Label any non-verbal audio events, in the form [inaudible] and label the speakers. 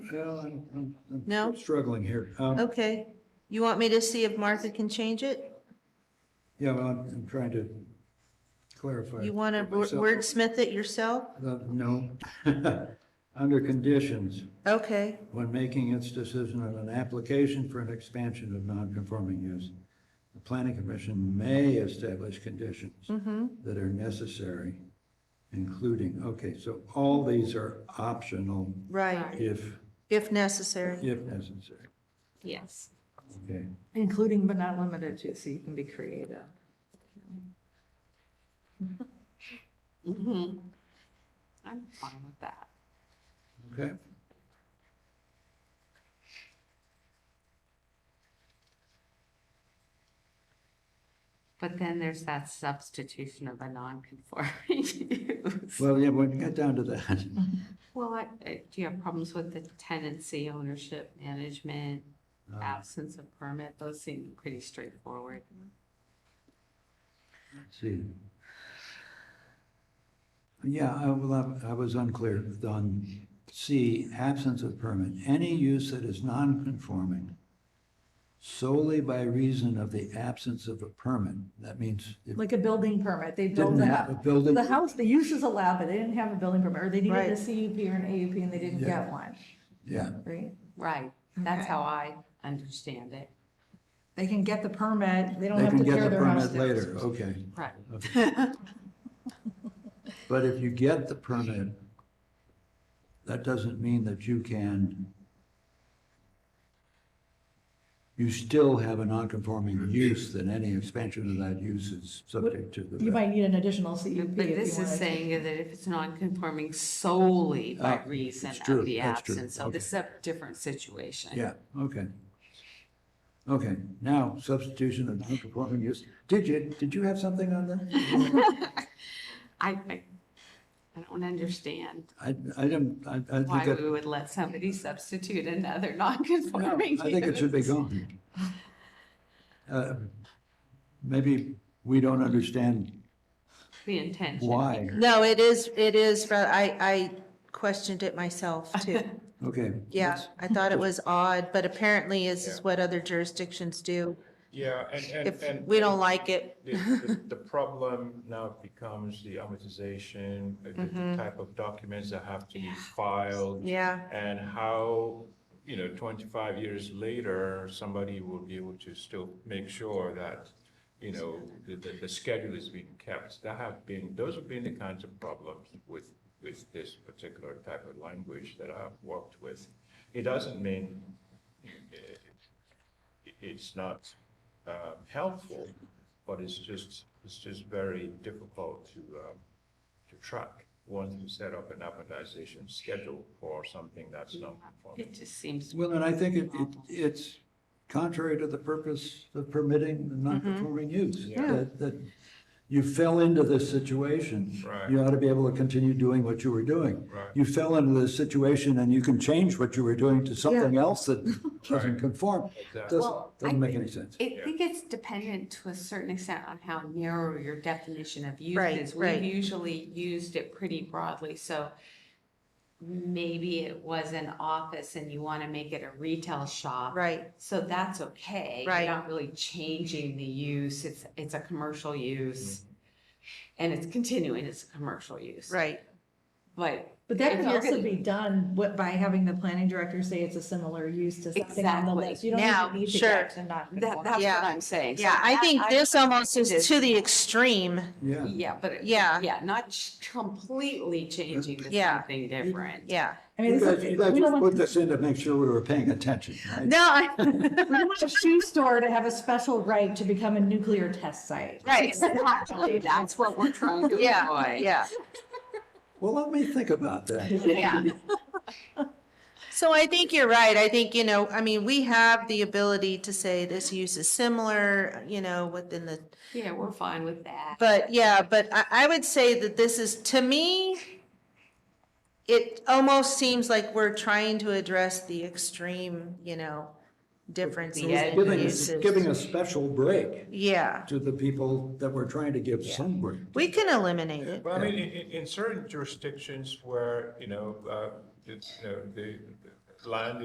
Speaker 1: Well, I'm- I'm- I'm
Speaker 2: No? Oh.
Speaker 1: Struggling here. Um,
Speaker 2: Okay, you want me to see if Martha can change it?
Speaker 1: Yeah, well, I'm I'm trying to clarify.
Speaker 2: You want to
Speaker 1: myself.
Speaker 2: wordsmith it yourself?
Speaker 1: Uh, No. [laughs] Under conditions,
Speaker 2: Okay,
Speaker 1: when making its decision on an application for an expansion of non-conforming use, the planning commission may establish conditions
Speaker 2: Mm-hmm.
Speaker 1: that are necessary, including, okay, so all these are optional
Speaker 2: right,
Speaker 1: if,
Speaker 2: if necessary.
Speaker 1: if necessary.
Speaker 3: Yes.
Speaker 1: Okay,
Speaker 4: Including but not limited to, so you can be creative.
Speaker 3: Mm-hmm. I'm fine with that.
Speaker 1: okay?
Speaker 3: But then there's that substitution of a non-conforming [laughs] use.
Speaker 1: Well, yeah, when you get down to that,
Speaker 3: Well, I, I- do you have problems with the tenancy, ownership, management,
Speaker 1: Uh.
Speaker 3: absence of permit? Those seem pretty straightforward.
Speaker 1: let's see. Yeah, I will, have- I was unclear on C, absence of permit. Any use that is non-conforming solely by reason of the absence of a permit, that means it
Speaker 4: Like a building permit, they built
Speaker 1: didn't
Speaker 4: the
Speaker 1: have a
Speaker 4: house.
Speaker 1: building.
Speaker 4: The house, the use is allowed, but they didn't have a building permit, or they needed
Speaker 2: Right.
Speaker 4: a CUP or an AUP and they didn't
Speaker 1: Yeah.
Speaker 4: get one,
Speaker 1: Yeah,
Speaker 4: right?
Speaker 3: Right, that's
Speaker 4: Okay.
Speaker 3: how I understand it.
Speaker 4: They can get the permit, they don't
Speaker 1: they
Speaker 4: have
Speaker 1: can
Speaker 4: to
Speaker 1: get
Speaker 4: tear
Speaker 1: the
Speaker 4: their house
Speaker 1: permit
Speaker 4: down.
Speaker 1: later, okay.
Speaker 3: Right.
Speaker 1: But if you get the permit, that doesn't mean that you can, you still have a non-conforming use, that any expansion of that use is subject to the.
Speaker 4: You might need an additional CUP if you
Speaker 3: But
Speaker 4: want.
Speaker 3: this is saying that if it's non-conforming solely by
Speaker 1: Ah,
Speaker 3: reason
Speaker 1: it's true,
Speaker 3: of the
Speaker 1: that's true,
Speaker 3: absence, so this is a different situation.
Speaker 1: Yeah, okay. Okay, now substitution of non-conforming use. Did you, did you have something on that?
Speaker 3: I, I, I don't understand
Speaker 1: I, I didn't, I, I think
Speaker 3: why we
Speaker 1: that,
Speaker 3: would let somebody substitute another [laughs]
Speaker 1: no,
Speaker 3: non-conforming
Speaker 1: I think it should be
Speaker 3: use.
Speaker 1: gone. Uh, Maybe we don't understand
Speaker 3: The intention.
Speaker 1: Why?
Speaker 2: No, it is, it is, but I, I questioned it myself [laughs] too.
Speaker 1: Okay.
Speaker 2: Yeah,
Speaker 1: that's-
Speaker 2: I thought it was odd, but apparently this is what other jurisdictions do.
Speaker 5: Yeah, and, and,
Speaker 2: If
Speaker 5: and.
Speaker 2: we don't like it,
Speaker 5: The, the- the problem now becomes the amortization, uh, the- the type of documents that have to be filed.
Speaker 2: Mm-hmm. yeah,
Speaker 5: And how, you know, twenty-five years later, somebody will be able to still make sure that, you know, the, the, the schedule is being kept. That have been, those have been the kinds of problems with, with this particular type of language that I've worked with. It doesn't mean eh, it's not um, helpful, but it's just, it's just very difficult to, um, to track once you set up an amortization schedule for something that's not
Speaker 3: It
Speaker 5: conforming.
Speaker 3: just seems.
Speaker 1: Well, and I think it, it, it's contrary to the purpose of permitting the non-conforming use.
Speaker 5: Yeah.
Speaker 1: That, that you fell into this situation.
Speaker 5: Right.
Speaker 1: You ought to be able to continue doing what you were doing.
Speaker 5: Right.
Speaker 1: You fell into this situation and you can change what you were doing to something else that doesn't conform.
Speaker 5: Exactly.
Speaker 1: Doesn't,
Speaker 3: Well, I-
Speaker 1: doesn't make any sense.
Speaker 3: I think it's dependent to a certain extent on how narrow your definition of use
Speaker 2: Right,
Speaker 3: is.
Speaker 2: right.
Speaker 3: We've usually used it pretty broadly, so maybe it was an office and you want to make it a retail shop.
Speaker 2: right,
Speaker 3: So that's okay.
Speaker 2: Right.
Speaker 3: You're not really changing the use. It's, it's a commercial
Speaker 1: Mm-hmm.
Speaker 3: use. And it's continuing as a commercial use.
Speaker 2: right.
Speaker 3: But
Speaker 4: But that
Speaker 3: If
Speaker 4: can
Speaker 3: you're
Speaker 4: also
Speaker 3: gonna-
Speaker 4: be done wi- by having the planning director say it's a similar use to something on the
Speaker 3: Exactly.
Speaker 4: list. You don't
Speaker 2: Now,
Speaker 4: even need to
Speaker 2: sure.
Speaker 4: get to not.
Speaker 3: that, that's
Speaker 2: Yeah.
Speaker 3: what I'm saying. So
Speaker 2: Yeah, I
Speaker 3: that-
Speaker 2: think this almost is
Speaker 3: this-
Speaker 2: to the extreme.
Speaker 1: Yeah.
Speaker 3: Yeah, but. it-
Speaker 2: Yeah.
Speaker 3: Yeah, not ch- completely changing to
Speaker 2: Yeah.
Speaker 3: something different.
Speaker 2: Yeah.
Speaker 4: I mean,
Speaker 1: You
Speaker 4: this
Speaker 1: guys,
Speaker 4: is-
Speaker 1: you
Speaker 4: we
Speaker 1: guys
Speaker 4: don't
Speaker 1: just
Speaker 4: want
Speaker 1: put this in to make sure we were paying attention, right?
Speaker 2: [laughs] No, I,
Speaker 4: we don't want a shoe store to have a special right to become a nuclear test site.
Speaker 2: right,
Speaker 3: Exactly, that's what we're trying to
Speaker 2: yeah,
Speaker 3: avoid.
Speaker 2: yeah.
Speaker 1: Well, let me think about that.
Speaker 3: Yeah.
Speaker 2: So I think you're right. I think, you know, I mean, we have the ability to say this use is similar, you know, within the,
Speaker 3: Yeah, we're fine with that.
Speaker 2: but yeah, but I, I would say that this is, to me, it almost seems like we're trying to address the extreme, you know, differences
Speaker 3: The edge.
Speaker 2: in
Speaker 1: Giving, us-
Speaker 2: uses.
Speaker 1: giving a special break
Speaker 2: Yeah,
Speaker 1: to the people that we're trying to give some break.
Speaker 2: we can eliminate it.
Speaker 5: Well, I mean, in, in certain jurisdictions where, you know, uh, it's, you know, the, land